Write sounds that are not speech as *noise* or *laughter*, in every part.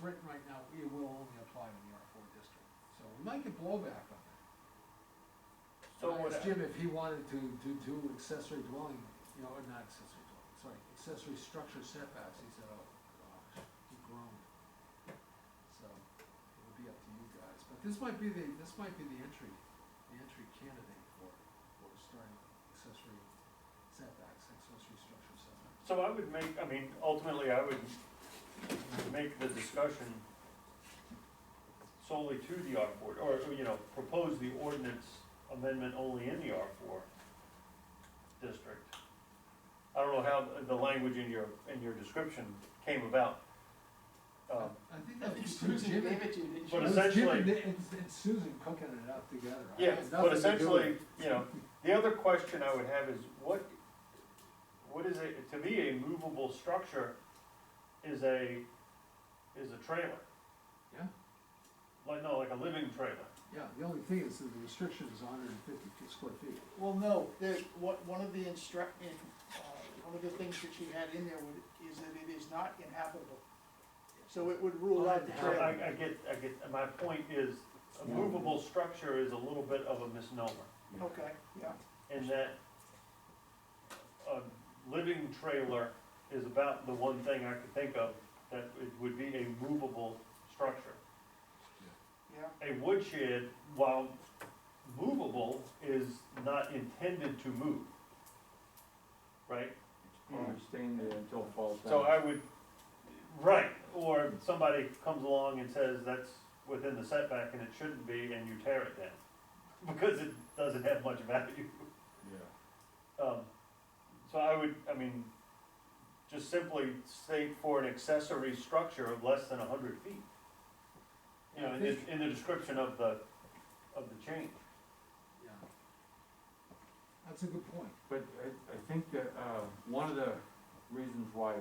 written right now, it will only apply to the R four district, so we might get blowback on that. So I would, asked Jim if he wanted to, to do accessory dwelling, you know, or not accessory dwelling, sorry, accessory structure setbacks, he said, oh, gosh, he groaned. So, it would be up to you guys, but this might be the, this might be the entry, the entry candidate for, for starting accessory setbacks, accessory structure setbacks. so I would make, I mean, ultimately, I would make the discussion solely to the R four, or, you know, propose the ordinance amendment only in the R four district. I don't know how the language in your, in your description came about. Um, I think I that think was Jim, Susan gave Jim, it to you, didn't it But she? was Jim essentially- and, and and Susan cooking it up together. I Yeah, had nothing but to do with essentially, it. you know, the other question I would have is what, what is it, to me, a movable structure is a, is a trailer. Yeah. Like, no, like a living trailer. Yeah, the only thing is that the restriction is hundred and fifty square feet. Well, no, there's, what, one of the instruct, in, uh, one of the things that she had in there would, is that it is not inhabitable. So it would rule out the So I, trailer. I get, I get, and my point is, a movable structure is a little bit of a misnomer Okay, yeah, in that a living trailer is about the one thing I could think of that it would be a movable structure. yeah, a woodshed, while movable, is not intended to move. Right? Or staying there until it falls down. So I would, right, or somebody comes along and says that's within the setback and it shouldn't be, and you tear it down. *laughs* Because it doesn't have much value. *laughs* Yeah, Um, so I would, I mean, just simply state for an accessory structure of less than a hundred feet. You know, in the, in the description of the, of the change. Yeah. That's a good point. but I, I think that, uh, one of the reasons why, I,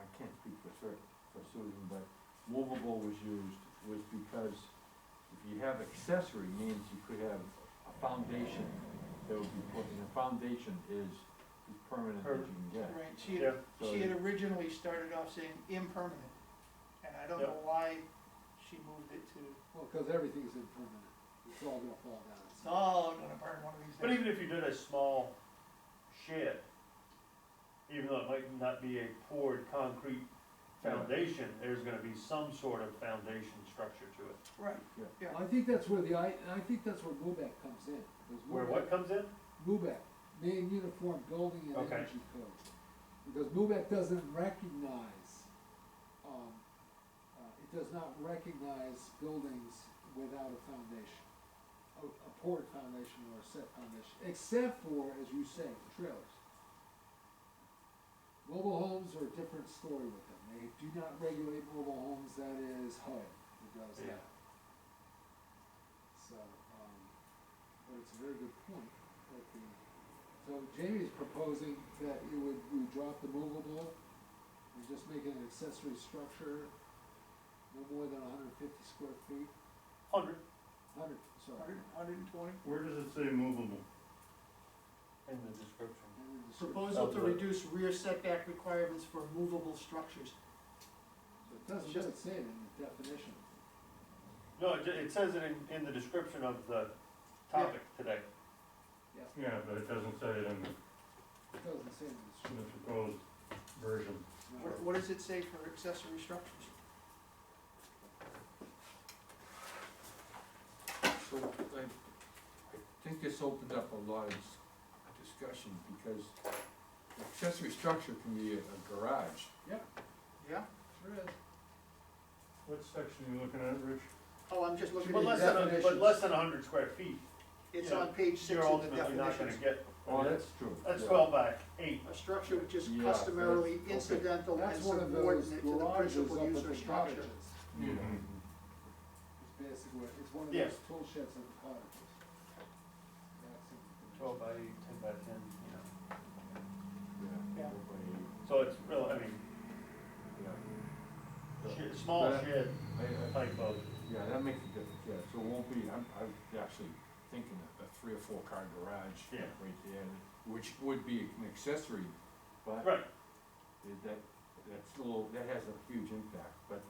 I can't speak for cer- for Susan, but movable was used was because if you have accessory means you could have a foundation that would be put, and a foundation is as permanent as you can get. right, she Yeah. had, she had originally started off saying impermanent, and I don't know why she moved it to, Well, because everything's impermanent, it's all gonna fall down. it's all gonna burn one of these But days. even if you did a small shed, even though it might not be a poured concrete foundation, there's gonna be some sort of foundation structure to it. Right, Yeah. Well, I think that's where the, I, and I think that's where MUBEC comes in. because Where what comes in? MUBEC, Maine Uniform Building and Okay. Energy Code. Because MUBEC doesn't recognize, um, uh, it does not recognize buildings without a foundation. A, a poured foundation or a set foundation, except for, as you say, trailers. Mobile homes are a different story with them. They do not regulate mobile homes, that is HUD who does Yeah. that. So, um, but it's a very good point that the, so Jamie's proposing that you would, you drop the movable and just make it an accessory structure no more than hundred and fifty square feet, Hundred, hundred, sorry. hundred, hundred and twenty? Where does it say movable? in the description. And then the sort of- Proposal to to reduce rear setback requirements for movable structures. so It doesn't really say it in the definition. No, it, it says it in, in the description of the topic today. Yeah, but it doesn't say it in the, It doesn't say it in the in the description. proposed version. no. What, what does it say for accessory structures? So I, I think this opened up a lot of dis- discussion because accessory structure can be a a garage. Yeah? Sure is. What section are you looking at, Rich? Oh, I'm just looking But at less the than, a- but definitions. less than hundred square feet, It's you know, on page six you're of the ultimately not gonna definitions. get, Oh, that's true. that's yeah. twelve by eight. A structure which is Yeah, customarily okay. incidental and That's one of those subordinate to the garages principal up use at or the structure. cottages. Yeah. It's basically, what- it's one of Yeah. those tool sheds at the cottages. That's in the Twelve by eight, ten by ten, you know. Yeah. Yeah. nobody- So it's real, I mean, yeah. shed- small But- shed I- I- type of. Yeah, that makes a difference, yeah, so it won't be, I'm, I'm actually thinking of a three or four car garage Yeah. right there, which would be an accessory, but Right, it- that, that's a little, that has a huge impact, but